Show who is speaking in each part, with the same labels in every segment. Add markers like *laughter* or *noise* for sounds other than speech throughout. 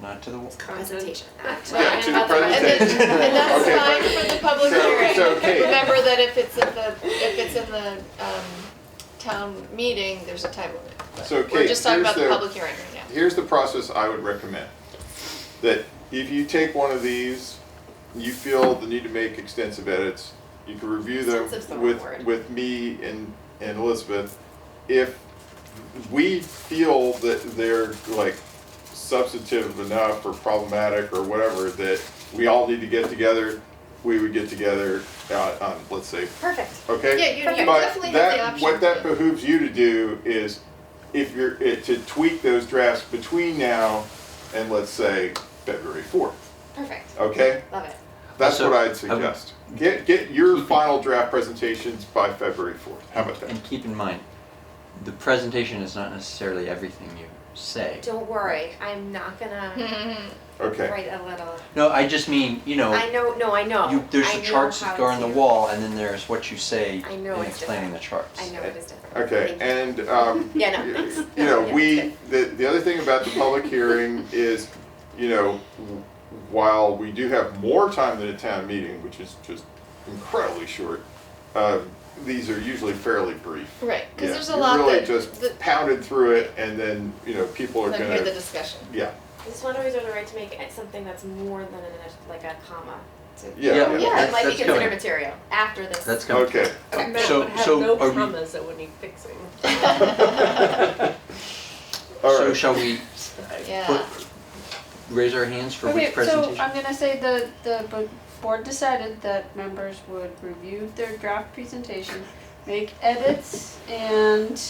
Speaker 1: Not to the wall.
Speaker 2: Consultation.
Speaker 3: Yeah, to the
Speaker 4: And then-
Speaker 3: presentation.
Speaker 4: And that's
Speaker 3: Okay,
Speaker 4: fine
Speaker 3: but-
Speaker 4: for the public
Speaker 3: So-
Speaker 4: hearing.
Speaker 3: so, Kate.
Speaker 4: Remember that if it's in the, if it's in the, um, town meeting, there's a time limit. But
Speaker 3: So,
Speaker 4: We're
Speaker 3: Kate,
Speaker 4: just talking
Speaker 3: here's
Speaker 4: about the
Speaker 3: the-
Speaker 4: public hearing right now.
Speaker 3: Here's the process I would recommend. That if you take one of these, you feel the need to make extensive edits, you can review them
Speaker 4: Extensive's the wrong
Speaker 3: with,
Speaker 4: word.
Speaker 3: with me and, and Elizabeth. If we feel that they're like substantive enough or problematic or whatever, that we all need to get together, we would get together, uh, on, let's say,
Speaker 2: Perfect.
Speaker 3: okay?
Speaker 4: Yeah, you- you
Speaker 3: But
Speaker 4: definitely have
Speaker 3: that-
Speaker 4: the option
Speaker 3: What that
Speaker 4: to-
Speaker 3: behooves you to do is, if you're, it- to tweak those drafts between now and let's say February fourth,
Speaker 4: Perfect,
Speaker 3: okay?
Speaker 4: love it.
Speaker 3: That's
Speaker 1: So,
Speaker 3: what I'd
Speaker 1: I would-
Speaker 3: suggest. Get, get your final draft presentations by February fourth, how about that?
Speaker 1: And keep in mind, the presentation is not necessarily everything you say.
Speaker 2: Don't worry, I'm not gonna
Speaker 4: *laughs*
Speaker 3: Okay,
Speaker 2: write a little.
Speaker 1: No, I just mean, you
Speaker 3: Oh.
Speaker 1: know,
Speaker 2: I know, no, I know.
Speaker 1: you, there's
Speaker 2: I
Speaker 1: the
Speaker 2: know
Speaker 1: charts that
Speaker 2: how
Speaker 1: go on the
Speaker 2: to-
Speaker 1: wall, and then there's what you say
Speaker 2: I know
Speaker 1: in
Speaker 2: it's
Speaker 1: explaining
Speaker 2: different.
Speaker 1: the charts.
Speaker 2: I know it is different.
Speaker 3: okay,
Speaker 2: Thank you.
Speaker 3: and, um,
Speaker 2: Yeah, no,
Speaker 3: y-
Speaker 2: thanks.
Speaker 3: you know,
Speaker 2: Yeah,
Speaker 3: we,
Speaker 2: it's
Speaker 3: the, the other thing about the public hearing is, you know, w- while we do have more time than a town meeting, which is just incredibly short, uh, these are usually fairly brief.
Speaker 4: Right, cause
Speaker 3: Yeah,
Speaker 4: there's a
Speaker 3: you
Speaker 4: lot
Speaker 3: really
Speaker 4: that,
Speaker 3: just
Speaker 4: that,
Speaker 3: pounded through it, and then you know people are
Speaker 4: that hear the
Speaker 3: gonna
Speaker 4: discussion.
Speaker 3: yeah
Speaker 2: I just wonder if there's a right to make it something that's more than an, like a comma. to-
Speaker 3: yeah
Speaker 1: Yeah.
Speaker 3: yeah.
Speaker 4: Yeah,
Speaker 1: that's-
Speaker 4: it might be
Speaker 1: that's
Speaker 4: considered
Speaker 1: going.
Speaker 4: material after this. *laughs*
Speaker 1: That's coming.
Speaker 3: Okay,
Speaker 4: Okay.
Speaker 5: That
Speaker 1: So-
Speaker 5: would have
Speaker 1: so
Speaker 5: no
Speaker 1: are we-
Speaker 5: commas that would need fixing.
Speaker 3: *laughs* all
Speaker 1: So
Speaker 3: right.
Speaker 1: shall we
Speaker 4: Yeah.
Speaker 1: put, raise our hands for
Speaker 6: Okay,
Speaker 1: which
Speaker 5: uh,
Speaker 1: presentation?
Speaker 6: So I'm gonna say the, the bo- board decided that members would review their draft presentation, make edits
Speaker 3: *laughs*
Speaker 6: and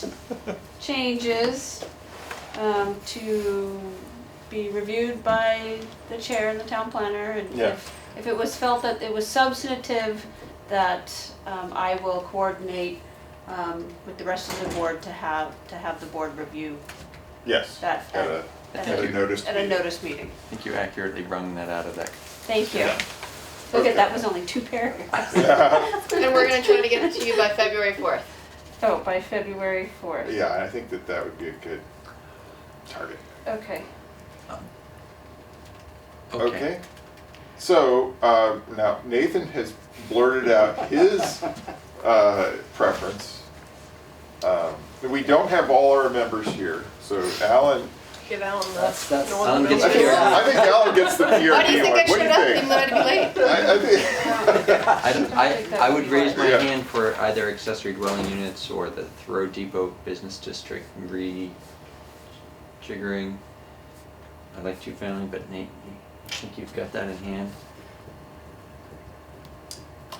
Speaker 6: changes um, to be reviewed by the chair and the town planner and
Speaker 3: Yeah.
Speaker 6: if, if it was felt that it was substantive, that um, I will coordinate um, with the rest of the board to have, to have the board review
Speaker 3: yes.
Speaker 6: that
Speaker 3: At a,
Speaker 1: I
Speaker 3: at
Speaker 1: think
Speaker 3: a
Speaker 1: you,
Speaker 3: notice.
Speaker 6: at a notice meeting.
Speaker 1: I think you accurately wrung that out of that.
Speaker 6: Thank you.
Speaker 3: Yeah.
Speaker 6: Look
Speaker 3: Okay.
Speaker 6: at that was only two *laughs* paragraphs.
Speaker 4: *laughs*
Speaker 3: *laughs* yeah,
Speaker 4: And we're gonna try to get it to you by February fourth.
Speaker 6: Oh, by February fourth.
Speaker 3: I think that that would be a good target.
Speaker 6: Okay.
Speaker 1: um,
Speaker 3: So uh, now Nathan has blurted out his uh, preference. Um, we don't have all our members here, so Alan.
Speaker 5: Give Alan
Speaker 7: That's-
Speaker 5: the
Speaker 7: that's-
Speaker 5: northern
Speaker 1: Alan gets
Speaker 3: I think,
Speaker 1: Here.
Speaker 3: I think Alan gets
Speaker 5: *laughs*
Speaker 3: the PRP
Speaker 4: Why do you think I
Speaker 3: one. What
Speaker 4: showed up even though I'd be
Speaker 3: do you
Speaker 4: late?
Speaker 3: think? *laughs* I, I think.
Speaker 1: I don't, I,
Speaker 6: think that
Speaker 1: I would
Speaker 6: would be
Speaker 1: raise my
Speaker 3: Yeah.
Speaker 1: hand for either accessory dwelling units or the Thoreau Depot Business District rejiggering. I like two family, but Nate, I think you've got that in hand.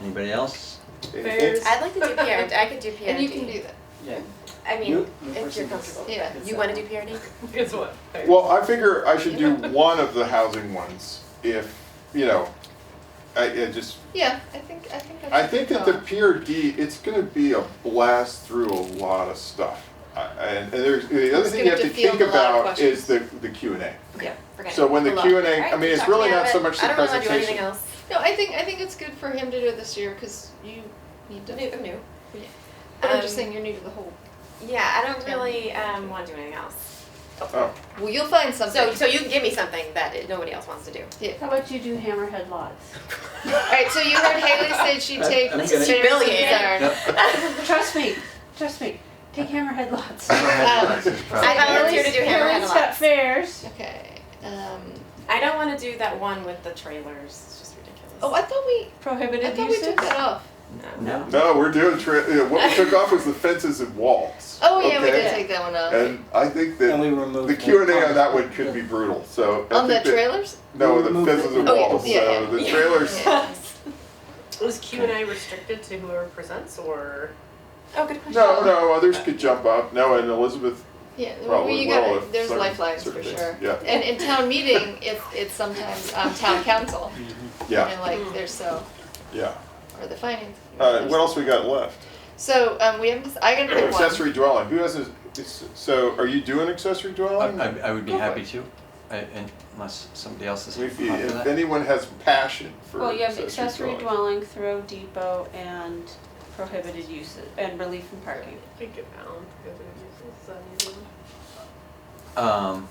Speaker 1: Anybody else?
Speaker 3: It's-
Speaker 2: I'd like to do PRD, I could do PRD.
Speaker 4: And you can do that.
Speaker 7: Yeah.
Speaker 2: I mean,
Speaker 7: You- the
Speaker 2: if you're
Speaker 7: person that's-
Speaker 2: comfortable.
Speaker 4: Yeah.
Speaker 2: You wanna do PRD?
Speaker 5: Guess what?
Speaker 3: Well, I figure I should do one of the housing ones if, you know, I, I just,
Speaker 4: Yeah, I think, I think that's.
Speaker 3: I think that the
Speaker 4: fine.
Speaker 3: PRD, it's gonna be a blast through a lot of stuff. I- And, and there's, the other
Speaker 4: It's
Speaker 3: thing you
Speaker 4: gonna
Speaker 3: have to
Speaker 4: defield
Speaker 3: think
Speaker 4: a lot of
Speaker 3: about is the,
Speaker 4: questions.
Speaker 3: the Q and A.
Speaker 2: Okay, forget it.
Speaker 3: So when the
Speaker 4: Hello.
Speaker 3: Q and A, I
Speaker 2: Alright,
Speaker 3: mean, it's
Speaker 2: talk
Speaker 3: really
Speaker 2: me out
Speaker 3: not
Speaker 2: of
Speaker 3: so
Speaker 2: it.
Speaker 3: much the
Speaker 2: I don't wanna do anything
Speaker 3: presentation.
Speaker 2: else.
Speaker 4: No, I think, I think it's good for him to do it this year, cause you need to.
Speaker 2: New, I'm new.
Speaker 4: But I'm just
Speaker 2: Um,
Speaker 4: saying you're new to the whole.
Speaker 2: Yeah, I don't really, um, wanna do anything else.
Speaker 3: Oh,
Speaker 4: Well, you'll find something.
Speaker 2: So, so you can give me something that it- nobody else wants to do.
Speaker 6: How about you do hammerhead lots?
Speaker 4: All right, so you heard Haley say she'd
Speaker 7: I-
Speaker 4: take
Speaker 7: I'm
Speaker 4: Sarah's
Speaker 7: gonna-
Speaker 4: and
Speaker 2: Humiliating.
Speaker 4: Sarah.
Speaker 1: Nope.
Speaker 6: Trust me. Trust me. Take hammerhead *laughs* lots.
Speaker 4: Oh.
Speaker 1: Hammerhead Lots is
Speaker 2: I
Speaker 1: probably-
Speaker 2: volunteer to do hammerhead
Speaker 6: Parents got
Speaker 2: lots.
Speaker 6: fairs.
Speaker 4: Okay. Um,
Speaker 2: *laughs* I don't wanna do that one with the trailers, it's just ridiculous.
Speaker 4: oh, I thought we. I
Speaker 6: Prohibited
Speaker 4: thought we
Speaker 6: uses.
Speaker 4: took that off.
Speaker 2: No.
Speaker 1: No?
Speaker 3: *laughs* no, we're doing, tra- yeah, what we took off was the fences and walls.
Speaker 4: Oh yeah, we did
Speaker 3: okay?
Speaker 4: take that one off.
Speaker 3: And I think
Speaker 7: And we
Speaker 3: that
Speaker 7: removed.
Speaker 3: the Q and A on that one could be brutal, so. I
Speaker 4: On the
Speaker 3: think that-
Speaker 4: trailers.
Speaker 3: No,
Speaker 7: We
Speaker 3: the
Speaker 7: removed
Speaker 3: fences
Speaker 7: it.
Speaker 3: and
Speaker 4: Oh, yeah,
Speaker 3: walls,
Speaker 4: yeah,
Speaker 3: so
Speaker 4: yeah.
Speaker 2: *laughs*
Speaker 3: the trailers.
Speaker 4: Yeah.
Speaker 5: Was Q and A restricted to whoever presents or?
Speaker 2: Oh, good question.
Speaker 3: No, no, others could jump up. No, and Elizabeth
Speaker 4: Yeah, well,
Speaker 3: probably
Speaker 4: you
Speaker 3: will.
Speaker 4: got
Speaker 3: if
Speaker 4: there's
Speaker 3: certain-
Speaker 4: lifelines for
Speaker 3: certain things.
Speaker 4: sure.
Speaker 3: Yeah,
Speaker 4: And in town meeting, it's it's sometimes um, town council
Speaker 3: yeah,
Speaker 4: and like there's so
Speaker 3: yeah.
Speaker 4: or the finance.
Speaker 3: Uh, what else we got left?
Speaker 4: So um, we haven't. I gotta pick one.
Speaker 3: accessory dwelling. Who has a? It's, so, are you doing accessory dwelling?
Speaker 1: I, I, I would be
Speaker 3: Go for
Speaker 1: happy
Speaker 3: it.
Speaker 1: to, I- and unless somebody else is up
Speaker 3: If,
Speaker 1: for
Speaker 3: you- if
Speaker 1: that.
Speaker 3: anyone has passion for
Speaker 6: Well, you have
Speaker 3: accessory
Speaker 6: accessory
Speaker 3: dwelling.
Speaker 6: dwelling, Thoreau Depot, and prohibited uses, and relief from parking.
Speaker 5: I think give Alan. the other uses, is that easy?
Speaker 1: Um,